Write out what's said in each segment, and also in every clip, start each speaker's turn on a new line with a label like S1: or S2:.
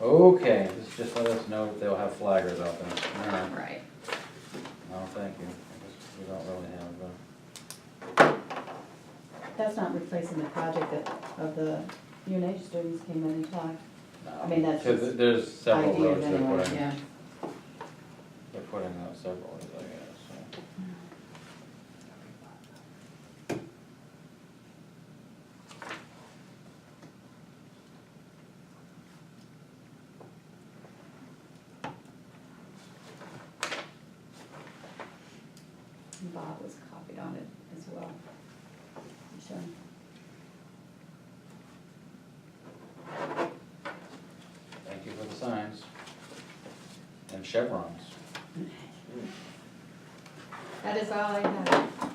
S1: Okay, just, just let us know if they'll have flaggers out there. All right.
S2: Right.
S1: No, thank you. I guess We don't really have, uh,
S3: That's not replacing the project that, of the UNH students came in and talked.
S1: no.
S3: I mean, that's
S1: Cause
S3: just
S1: there's several
S3: ideas
S1: roads they're
S3: anyway,
S1: putting,
S2: Yeah,
S1: they're putting out several, roads, I guess,
S3: And Bob was copied on it as well. I'm Sure.
S1: so. Thank you for the signs. And chevrons.
S3: That is all I have.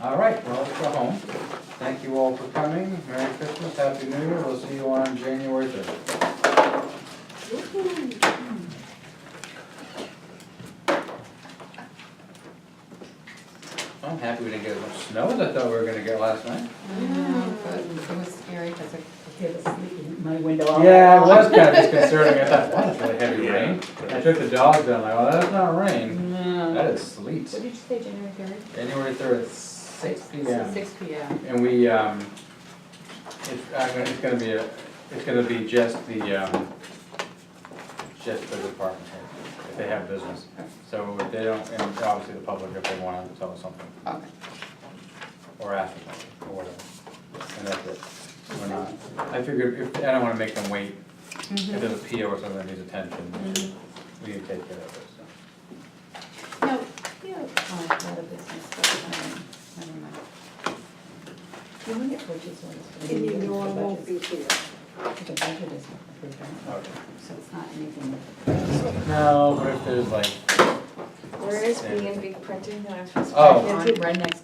S1: All right, well, let's go home. Thank you all for coming. Merry Christmas, Happy New Year. We'll see you on January third. I'm happy we didn't get as much snow as I thought we were gonna get last night.
S2: I
S3: Mm-hmm.
S2: know, but it was scary because I could hear the sleeping.
S3: My window
S1: Yeah, it was kind of disconcerting. I thought, wow, that's really heavy
S4: Yeah.
S1: rain. I took the dogs down, like, oh, that's not rain. That is
S2: What
S1: sleet.
S2: did you say, January third?
S1: January third, six P M.
S2: Six P M.
S1: And we, um, it's, I'm gonna- it's gonna be a, it's gonna be just the, um, just the department head, if they have business. So if they don't, and obviously the public, if they wanna tell us something,
S2: Okay.
S1: or ask us something, or whatever. And that's it. We're not, I figured, if, I don't wanna make them wait If there's a PO or something that needs attention, we should- we can take care of it, so.
S2: No, you, oh, I had a business, but, um, never mind.
S3: You want to get purchase orders. for the
S5: And you
S3: year,
S5: know I
S3: the
S5: won't be
S3: budgets.
S5: here.
S3: The budget is approved, right? so it's not anything.
S1: No, but if there's like,
S5: Where is B and B printing that I'm supposed to?
S1: Oh.
S5: check
S3: On,
S5: into?
S3: right next